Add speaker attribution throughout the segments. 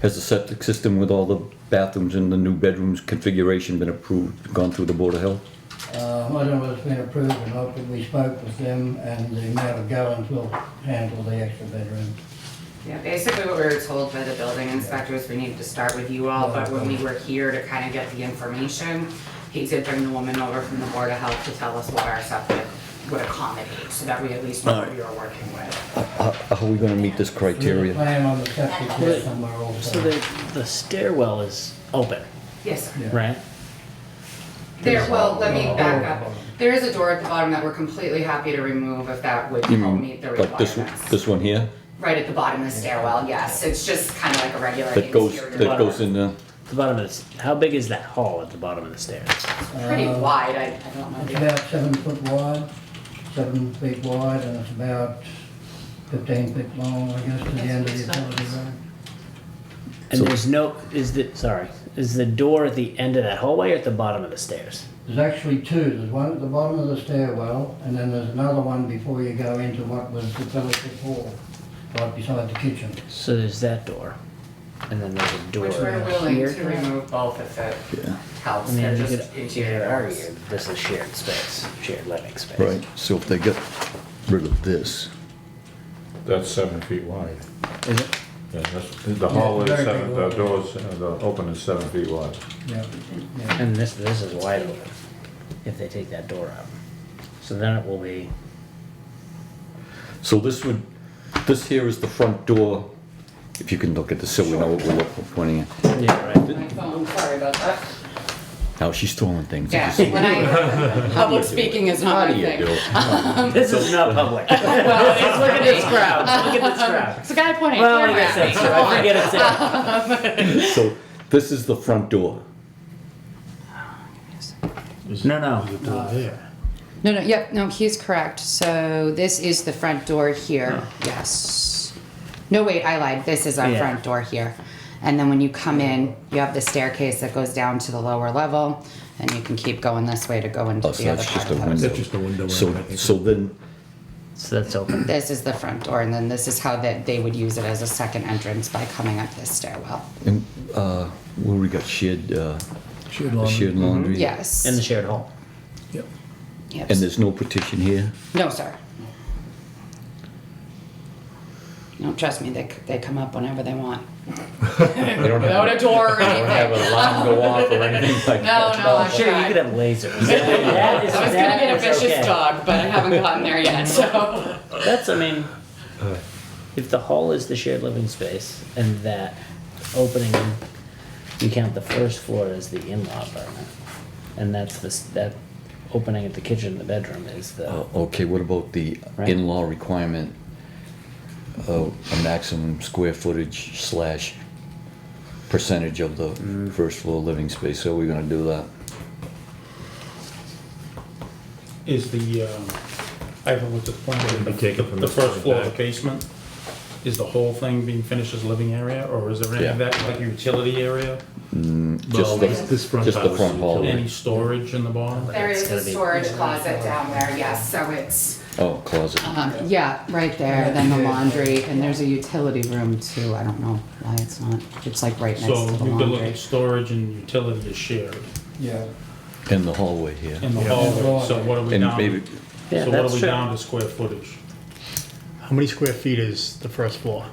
Speaker 1: Has the septic system with all the bathrooms and the new bedrooms configuration been approved, gone through the Board of Health?
Speaker 2: Uh, whether it's been approved or not, but we spoke with them and the amount of gallons will handle the extra bedroom.
Speaker 3: Yeah, basically what we were told by the building inspectors, we needed to start with you all, but when we were here to kind of get the information, he did bring the woman over from the Board of Health to tell us what our septic would accommodate, so that we at least know what we were working with.
Speaker 1: How how are we gonna meet this
Speaker 2: There's a
Speaker 1: criteria?
Speaker 2: plan on the septic there
Speaker 4: Right.
Speaker 2: somewhere
Speaker 4: So
Speaker 2: also.
Speaker 4: the, the stairwell is open,
Speaker 3: Yes, sir.
Speaker 2: Yeah.
Speaker 4: right?
Speaker 3: There, well, let me
Speaker 2: Oh,
Speaker 3: back
Speaker 2: oh,
Speaker 3: up.
Speaker 2: oh.
Speaker 3: There is a door at the bottom that we're completely happy to remove if that would
Speaker 1: You
Speaker 3: help
Speaker 1: mean,
Speaker 3: meet the
Speaker 1: like this, one-
Speaker 3: requirements.
Speaker 1: this one here,
Speaker 3: Right at the bottom of the stairwell, yes, it's just kind of like a regular
Speaker 1: that goes,
Speaker 3: interior
Speaker 1: that
Speaker 3: door.
Speaker 1: goes in the,
Speaker 4: The bottom of this, how big is that hall at the bottom of the stairs?
Speaker 3: It's Pretty
Speaker 2: Uh,
Speaker 3: wide, I, I don't know.
Speaker 2: It's
Speaker 3: the-
Speaker 2: about seven foot wide, seven feet wide, and it's about fifteen feet long, I guess, to the end of the utility room.
Speaker 4: And
Speaker 1: So-
Speaker 4: there's no, is the, sorry, is the door at the end of that hallway or at the bottom of the stairs?
Speaker 2: There's actually two, there's one at the bottom of the stairwell, and then there's another one before you go into what was the fellowship hall, right beside the kitchen.
Speaker 4: So there's that door, and then there's a door
Speaker 3: Which we're willing
Speaker 4: here.
Speaker 3: to remove both if it
Speaker 1: yeah,
Speaker 4: I
Speaker 3: helps, they're
Speaker 4: mean, you
Speaker 3: just
Speaker 4: could
Speaker 3: interior
Speaker 4: interior
Speaker 3: doors.
Speaker 4: argue this is shared space, shared living space.
Speaker 1: right, so if they get rid of this,
Speaker 5: That's seven feet wide.
Speaker 4: Is it?
Speaker 5: Yeah, that's, the hallway is
Speaker 2: very
Speaker 5: seven,
Speaker 2: big
Speaker 5: the
Speaker 2: wide.
Speaker 5: doors, uh, the open is seven feet wide.
Speaker 2: Yeah, yeah.
Speaker 4: And this, this is wide open, if they take that door out. So then it will be,
Speaker 1: so this would, this here is the front door, if you can look at this, so we know what we're looking, pointing at.
Speaker 4: yeah, right?
Speaker 3: My phone, sorry about that.
Speaker 1: Now, she's throwing things. You
Speaker 3: Yeah,
Speaker 1: can see-
Speaker 3: when I, public speaking is
Speaker 1: How
Speaker 3: not
Speaker 1: do
Speaker 3: my
Speaker 1: you
Speaker 3: thing.
Speaker 1: do it?
Speaker 4: This is not public.
Speaker 3: Well, it's
Speaker 4: Look at
Speaker 3: looking
Speaker 4: this crowd. Look at this crowd.
Speaker 3: It's a guy pointing a
Speaker 4: Well,
Speaker 3: camera
Speaker 4: like I
Speaker 3: at me.
Speaker 4: said, so I forget it's there.
Speaker 1: So this is the front door.
Speaker 4: No, no.
Speaker 6: No, no, yep, no, he's correct. So this is the front door
Speaker 3: Oh.
Speaker 6: here, yes. No, wait, I lied. This is our
Speaker 4: Yeah.
Speaker 6: front door here. And then when you come in, you have the staircase that goes down to the lower level, and you can keep going this way to go into
Speaker 1: Oh, so
Speaker 6: the other
Speaker 1: that's
Speaker 6: part
Speaker 1: just a
Speaker 6: of the house.
Speaker 1: window.
Speaker 7: That's just a window,
Speaker 1: So,
Speaker 7: I think.
Speaker 1: so then,
Speaker 4: So that's open.
Speaker 6: This is the front door, and then this is how that they would use it as a second entrance by coming up this stairwell.
Speaker 1: and, uh, where we got shared, uh,
Speaker 7: Shared laundry. Mm-hmm.
Speaker 1: shared laundry?
Speaker 6: Yes.
Speaker 4: In the shared hall.
Speaker 7: Yep.
Speaker 6: Yep.
Speaker 1: And there's no partition here?
Speaker 6: No, sir. No, trust me, they, c- they come up whenever they want.
Speaker 1: They don't
Speaker 3: Without a door or anything.
Speaker 1: alarm go off or anything like
Speaker 3: No, no, I'm
Speaker 4: Sure, you could
Speaker 3: tried.
Speaker 4: have lasers. That is-
Speaker 3: I was gonna
Speaker 4: that
Speaker 3: get a
Speaker 4: is
Speaker 3: vicious
Speaker 4: okay.
Speaker 3: dog, but I haven't gotten there yet, so.
Speaker 4: That's, I mean, if the hall is the shared living space and that opening, you count the first floor as the in-law apartment, and that's the s- that opening at the kitchen and the bedroom is
Speaker 8: Oh.
Speaker 4: the.
Speaker 1: Uh, Okay, what about the
Speaker 4: Right.
Speaker 1: in-law requirement of a maximum square footage slash percentage of the
Speaker 7: Mm.
Speaker 1: first floor living space? So we're gonna do that?
Speaker 9: Is the, um, I haven't looked at the plan,
Speaker 7: It'll be
Speaker 9: but
Speaker 7: taken from
Speaker 9: the
Speaker 7: this
Speaker 9: first
Speaker 7: point
Speaker 9: floor of the
Speaker 7: back.
Speaker 9: basement, is the whole thing being finished as living area, or is there any of
Speaker 1: Yeah. Mm,
Speaker 9: that, like utility area?
Speaker 1: Just the-
Speaker 7: this- this front
Speaker 1: Just the
Speaker 7: house.
Speaker 1: front hallway?
Speaker 9: Any storage in the bottom?
Speaker 3: There
Speaker 4: It's
Speaker 3: is a
Speaker 4: gonna be-
Speaker 3: storage closet down there, yes, so it's,
Speaker 1: Oh, closet.
Speaker 6: Um, yeah, right there, then the laundry, and there's a utility room too, I don't know why it's not, it's like right next
Speaker 9: So
Speaker 6: to the
Speaker 9: you could look
Speaker 6: laundry.
Speaker 9: at storage and utility is shared
Speaker 2: Yeah.
Speaker 1: In the hallway here.
Speaker 9: in the hallway, so what are we
Speaker 1: And
Speaker 9: down?
Speaker 1: maybe-
Speaker 4: Yeah,
Speaker 9: So what
Speaker 4: that's
Speaker 9: are we
Speaker 4: true.
Speaker 9: down to square footage?
Speaker 7: How many square feet is the first floor?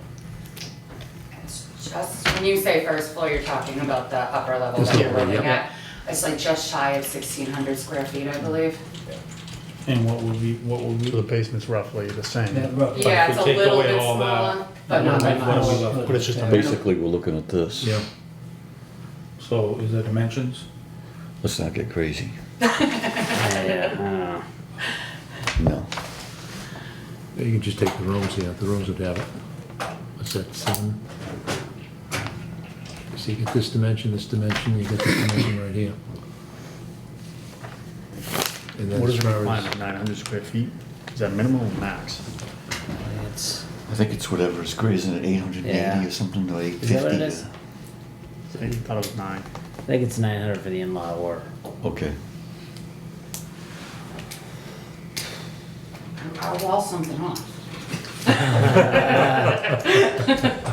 Speaker 3: it's just, when you say first floor, you're talking about the upper level
Speaker 7: Just
Speaker 3: that
Speaker 7: the
Speaker 3: you're
Speaker 7: upper,
Speaker 3: living
Speaker 7: yeah.
Speaker 3: at. It's like just shy of sixteen hundred square feet, I believe.
Speaker 9: And what would we, what would
Speaker 7: So the
Speaker 9: we,
Speaker 7: basement's roughly the
Speaker 2: That
Speaker 7: same,
Speaker 2: rough-
Speaker 3: Yeah,
Speaker 9: we
Speaker 3: it's a
Speaker 9: take
Speaker 3: little
Speaker 9: away
Speaker 3: bit
Speaker 9: all that,
Speaker 3: smaller, but not by
Speaker 9: what
Speaker 3: much.
Speaker 9: are we left?
Speaker 7: but it's just a base.
Speaker 1: Basically, we're looking at this.
Speaker 7: Yeah.
Speaker 9: So is there dimensions?
Speaker 1: Let's not get crazy.
Speaker 4: Yeah, I don't know.
Speaker 1: No.
Speaker 7: You can just take the rooms here, the rooms would have it. What's that, seven? So you get this dimension, this dimension, you get this dimension right here. And then
Speaker 10: What
Speaker 7: as
Speaker 10: is the
Speaker 7: far as,
Speaker 10: requirement, nine hundred square feet? Is that minimum or max?
Speaker 4: It's,
Speaker 8: I think it's whatever is greater than 880
Speaker 4: Yeah.
Speaker 8: or something like
Speaker 4: is that what it
Speaker 8: 850.
Speaker 4: is?
Speaker 10: I thought it was nine.
Speaker 4: I think it's nine hundred for the in-law or,
Speaker 1: Okay.
Speaker 3: I'll wall something off.